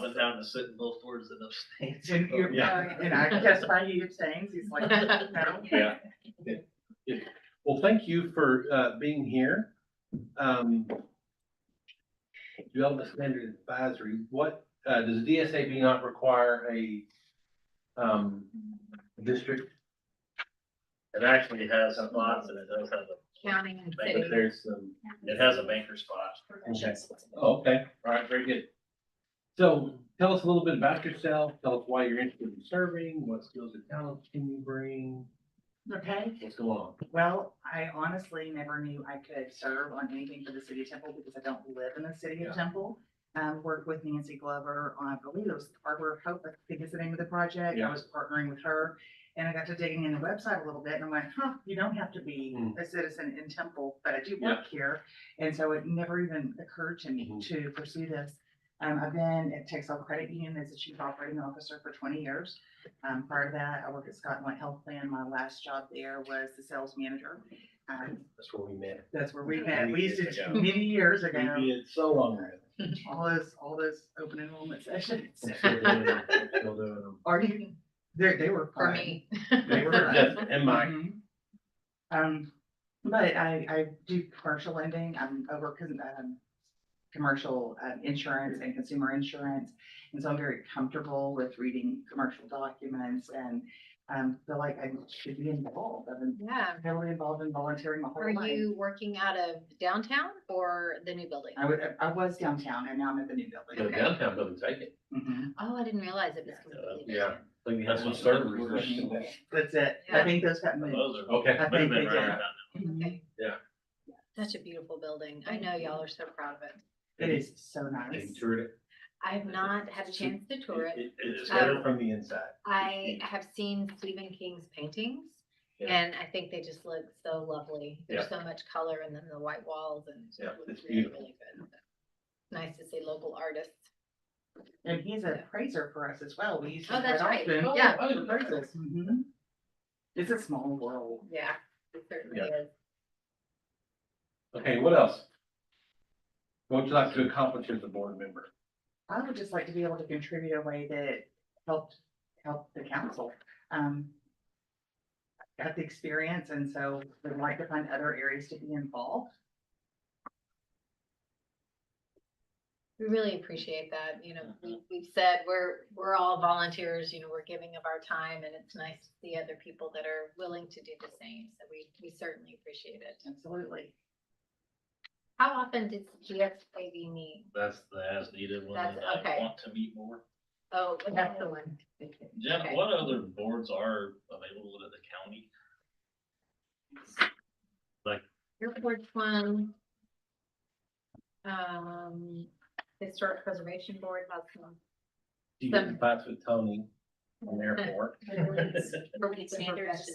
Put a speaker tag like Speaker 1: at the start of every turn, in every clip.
Speaker 1: town to sit in both boards and abstains.
Speaker 2: And you're, uh,
Speaker 3: Yeah.
Speaker 2: and I guess by he abstains, he's like, no.
Speaker 3: Yeah. Yeah. Well, thank you for uh being here. Um. Development Standard Advisory, what uh does DSAB not require a um district?
Speaker 1: It actually has spots and it does have a,
Speaker 4: County and
Speaker 1: Thank
Speaker 4: city.
Speaker 1: you.
Speaker 3: If there's some,
Speaker 1: it has a banker spot.
Speaker 3: oh, okay, all right, very good. So tell us a little bit about yourself, tell us why you're interested in serving, what skills and talents can you bring,
Speaker 2: Okay,
Speaker 3: what's going on?
Speaker 2: well, I honestly never knew I could serve on anything for the city of Temple because I don't live in the city
Speaker 3: Yeah.
Speaker 2: of Temple. Um, worked with Nancy Glover on, I believe it was Harbor Hope, I think is the name of the project.
Speaker 3: Yeah.
Speaker 2: I was partnering with her. And I got to digging in the website a little bit and I'm like, huh, you don't have to be
Speaker 3: Mm.
Speaker 2: a citizen in Temple, but I do work here. And so it never even occurred to me
Speaker 3: Mhm.
Speaker 2: to pursue this. Um, I've been at Texas Credit Union as a chief operating officer for twenty years. Um, prior to that, I worked at Scott and White Health Plan. My last job there was the sales manager. Um,
Speaker 3: That's where we met.
Speaker 2: that's where we met. We used
Speaker 3: Years
Speaker 2: to,
Speaker 3: ago.
Speaker 2: many years
Speaker 3: We
Speaker 2: ago,
Speaker 3: did so long ago.
Speaker 2: all those, all those open enrollment sessions.
Speaker 3: I'm still doing them. I'm still doing them.
Speaker 2: Are you, they, they were
Speaker 4: For
Speaker 2: fun.
Speaker 4: me.
Speaker 2: They were fun.
Speaker 3: Yes, and Mike.
Speaker 2: Mhm. Um, but I, I do commercial lending, I'm over, con- um, commercial, um, insurance and consumer insurance. And so I'm very comfortable with reading commercial documents and, um, feel like I should be involved, I've been
Speaker 4: Yeah.
Speaker 2: heavily involved in volunteering my
Speaker 4: Are
Speaker 2: whole life.
Speaker 4: you working out of downtown or the new building?
Speaker 2: I would, I was downtown and now I'm at the new
Speaker 3: The
Speaker 2: building.
Speaker 3: downtown doesn't take it.
Speaker 2: Mhm.
Speaker 4: Oh, I didn't realize it was completely
Speaker 3: Yeah.
Speaker 4: different.
Speaker 3: That's what started it.
Speaker 2: That's it, I
Speaker 4: Yeah.
Speaker 2: think those got moved.
Speaker 1: Those are.
Speaker 3: Okay.
Speaker 2: I
Speaker 1: Might have been
Speaker 2: think they
Speaker 1: right
Speaker 2: did.
Speaker 1: about
Speaker 2: Mhm.
Speaker 4: Okay.
Speaker 3: Yeah.
Speaker 4: Such a beautiful building. I know y'all are so proud of it.
Speaker 2: It is so
Speaker 3: They
Speaker 2: nice.
Speaker 3: toured it.
Speaker 4: I have not had a
Speaker 3: It's-
Speaker 4: chance to tour it.
Speaker 3: It- It's
Speaker 4: Um,
Speaker 3: better from the inside.
Speaker 4: I have seen Stephen King's paintings.
Speaker 3: Yeah.
Speaker 4: And I think they just look so lovely. There's so much color and then the white walls and it
Speaker 3: Yeah,
Speaker 4: just
Speaker 3: it's
Speaker 4: looks really,
Speaker 3: beautiful.
Speaker 4: really good. Nice to see local artists.
Speaker 2: And he's a praiser for us as well. We used to
Speaker 4: Oh,
Speaker 2: quite
Speaker 4: that's right.
Speaker 2: often.
Speaker 4: Yeah.
Speaker 3: I didn't
Speaker 2: for praises. Mhm. It's a small world.
Speaker 4: Yeah, it certainly
Speaker 3: Yeah.
Speaker 4: is.
Speaker 3: Okay, what else? What would you like to accomplish as a board member?
Speaker 2: I would just like to be able to contribute in a way that helped, help the council. Um. I've Got the experience and so would like to find other areas to be involved.
Speaker 4: We really appreciate that, you know, we, we've said, we're, we're all volunteers, you know, we're giving of our time and it's nice to see other people that are willing to do the same, so we, we certainly appreciate it.
Speaker 2: Absolutely.
Speaker 4: How often does GSAB meet?
Speaker 1: That's the as needed one.
Speaker 4: That's-
Speaker 1: and I
Speaker 4: okay.
Speaker 1: Want to meet more.
Speaker 4: Oh, that's the one.
Speaker 1: Jeff,
Speaker 4: Okay.
Speaker 1: what other boards are available to the county?
Speaker 4: Airport one. Um, Historic Preservation Board has one.
Speaker 3: Do you get in fights with Tony on the airport?
Speaker 4: Appropriate standards.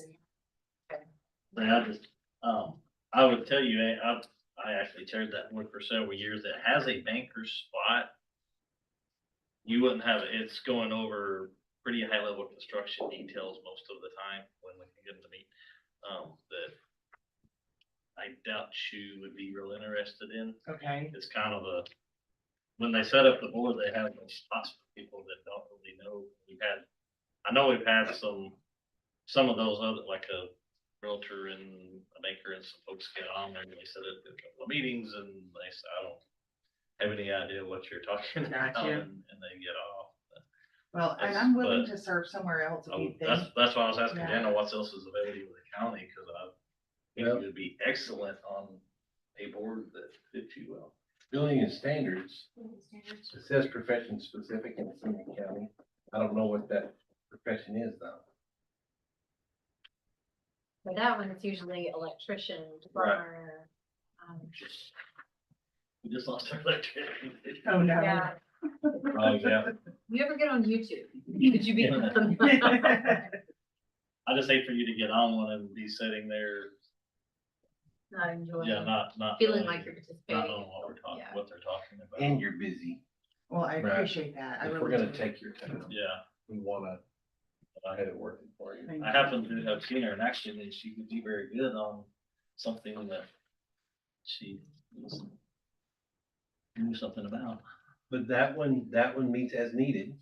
Speaker 1: Like, I just, um, I would tell you, I, I- I actually chaired that board for several years. It has a banker spot. You wouldn't have, it's going over pretty high level construction details most of the time when we can get them to meet. Um, that I doubt you would be real interested in.
Speaker 2: Okay.
Speaker 1: It's kind of a, when they set up the board, they have those spots for people that don't really know. We've had, I know we've had some, some of those other, like a realtor and a banker and some folks get on there and they set up a couple of meetings and they say, I don't have any idea what you're talking about
Speaker 2: Gotcha.
Speaker 1: and, and they get off.
Speaker 2: Well, and
Speaker 1: That's-
Speaker 2: I'm willing
Speaker 1: but-
Speaker 2: to serve somewhere else if
Speaker 1: I
Speaker 2: you
Speaker 1: would- That's,
Speaker 2: think.
Speaker 1: that's why I was asking
Speaker 2: Yeah.
Speaker 1: Dana, what else is available with the county? Cause I
Speaker 3: Yeah.
Speaker 1: think you would be excellent on a board that fits you well.
Speaker 3: Building and standards, it says profession specific in Seaman County. I don't know what that profession is though.
Speaker 4: For that one, it's usually electrician,
Speaker 3: Right.
Speaker 4: plumber. um,
Speaker 1: We just lost our electricity.
Speaker 2: Oh, no.
Speaker 4: Yeah,
Speaker 3: Oh, yeah.
Speaker 4: you ever get on YouTube? Could you be?
Speaker 1: I just hate for you to get on one and be sitting there,
Speaker 4: Not enjoying.
Speaker 1: yeah, not, not.
Speaker 4: Feeling
Speaker 1: knowing-
Speaker 4: like you're
Speaker 1: Not
Speaker 4: participating.
Speaker 1: knowing what we're talking,
Speaker 4: Yeah.
Speaker 1: what they're talking
Speaker 3: And
Speaker 1: about.
Speaker 3: you're busy.
Speaker 2: Well, I
Speaker 3: Right.
Speaker 2: appreciate that. I
Speaker 3: If
Speaker 2: really
Speaker 3: we're gonna
Speaker 2: do.
Speaker 3: take your time,
Speaker 1: Yeah,
Speaker 3: we wanna
Speaker 1: I-
Speaker 3: have it working for you.
Speaker 2: Thank
Speaker 1: I happen to have seen her in action and she could be very good on something that she was- knew something about.
Speaker 3: but that one, that one meets as needed.